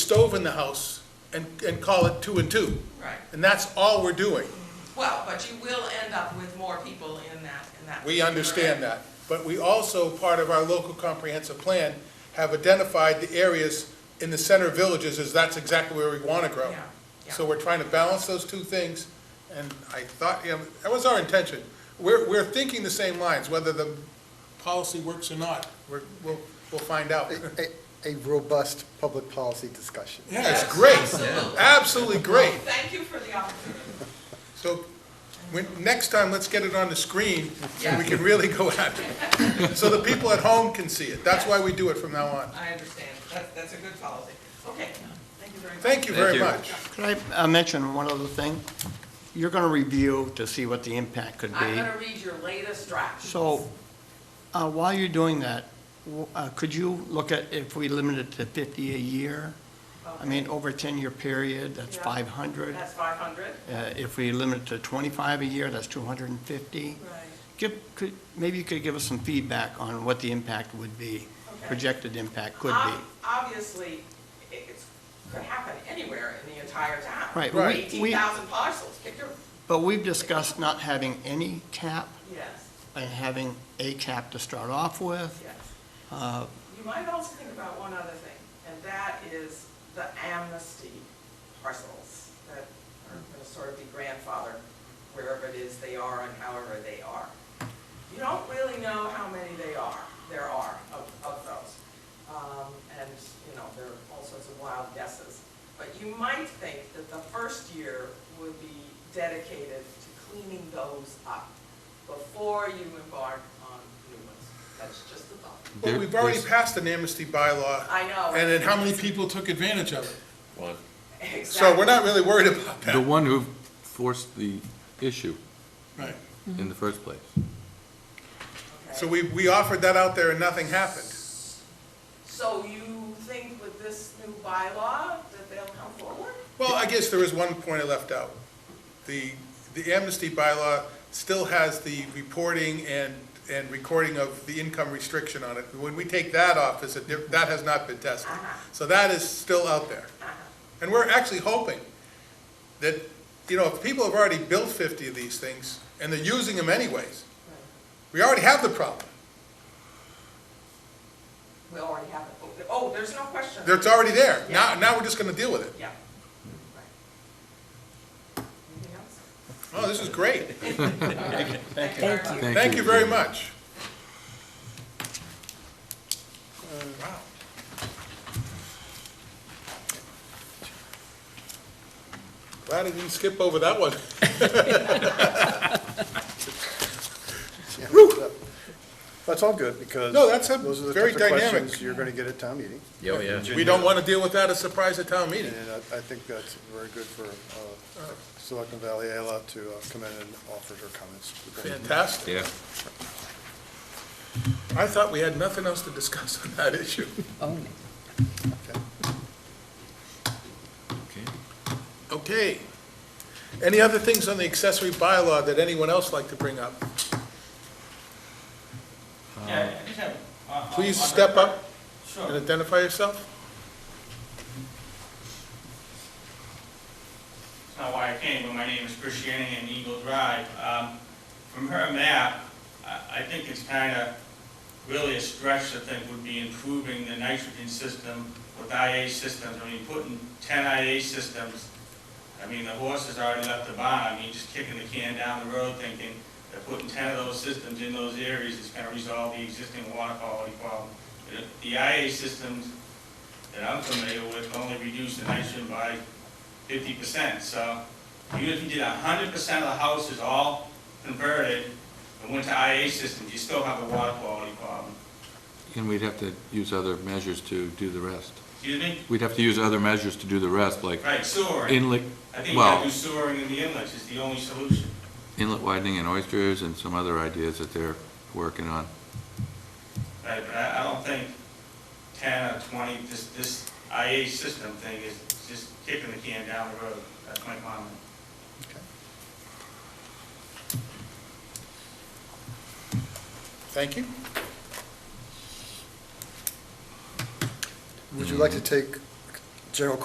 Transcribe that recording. stove in the house and, and call it two and two. Right. And that's all we're doing. Well, but you will end up with more people in that, in that. We understand particular that. But we also, part of our local comprehensive plan, have identified the areas in the center villages as that's exactly where we want to grow. Yeah, yeah. So we're trying to balance those two things, and I thought, you know, that was our intention. We're, we're thinking the same lines, whether the policy works or not, we're, we'll, we'll find out. A, a robust public policy discussion. Yeah, it's Yes, great, absolutely. absolutely great. area. Thank you for the opportunity. So, when, next time, let's get it on the screen, so we can really go at it. So the people at home can see it. That's why we do it from now on. I understand. That's, that's a good policy. Okay, thank you very much. Thank you very Thank you. much. Could I uh, mention one other thing? You're going to review to see what the impact could I'm be. gonna read your latest draft. So uh, while you're doing that, w- uh, could you look at if we limit it to 50 a year? I mean, over a 10-year period, that's Yeah. 500. That's five hundred. Uh, If we limit it to 25 a year, that's 250. Give, could, maybe you could give us some feedback on what the impact would be, Okay. projected impact could be. Ob- Obviously, it, it's, could happen anywhere in the entire town. Right, Right. we- Eighteen we- thousand parcels, pick your, But we've discussed not having any cap yes, and having a cap to start off with. yes. Uh, You might also think about one other thing, and that is the amnesty parcels that are going to sort of be grandfathered wherever it is they are and however they are. You don't really know how many they are, there are of, of those. Um, and, you know, there are all sorts of wild guesses. But you might think that the first year would be dedicated to cleaning those up before you embark on new ones. That's just a thought. Well, There- we've already there's- passed an amnesty bylaw, I know. and then how many people took advantage of it? One. Exactly. So we're not really worried about The that. one who forced the issue Right. in the first place. Okay. So we, we offered that out there and nothing happened. So you think with this new bylaw that they'll come forward? Uh-huh. Well, I guess there is one point I left out. The, the amnesty bylaw still has the reporting and, and recording of the income restriction on it. When we take that off, it's a, diff- that has not been tested. So that is still out there. And we're actually hoping that, you know, if people have already built fifty of these things, and they're using them anyways, we already have the problem. We already have it. Oh, Oh, there's no question. It's already there. Now, now we're just gonna deal with it. Yeah. Right. Anything else? Oh, this is great. Thank you. very much. Thank you very much. Uh, Wow. Glad I didn't skip over that one. Yeah, so That's all good, because. No, that's a those are the very types of questions dynamic. You're gonna get at town meeting, Oh, yeah. We don't want to deal with that as a surprise at town meeting. and I, I think that's very good for, uh, Silicon Valley Ayla to uh, come in and offer her comments. Fantastic. Yeah. I thought we had nothing else to discuss on that issue. Okay. Okay. Any other things on the accessory bylaw that anyone else like to bring up? Yeah, I just have, uh, uh, Um, Please on step the- up and Sure. identify yourself. That's not why I came, but my name is Chris Shanahan, Eagle Drive. Um, From her map, I I think it's kind of really a stretch to think would be improving the nitrogen system with IA systems. I mean, putting 10 IA systems, I mean, the horse has already left the barn. I mean, just kicking the can down the road thinking that putting 10 of those systems in those areas is going to resolve the existing water quality problem. The- The IA systems that I'm familiar with only reduce the nitrogen by fifty percent, so even if you did hundred percent of the houses all converted and went to IA systems, you still have a water quality problem. And we'd have to use other measures to do the rest. Excuse me? We'd have to use other measures to do the rest, like Right, sewering. inlet, I think you well- gotta do sewering in the inlets is the only solution. inlet widening and oysters and some other ideas that they're working on. Right, but I, I don't think ten or twenty, this, this IA system thing is just kicking the can down the road. That's my comment. Thank you. Would you like to take general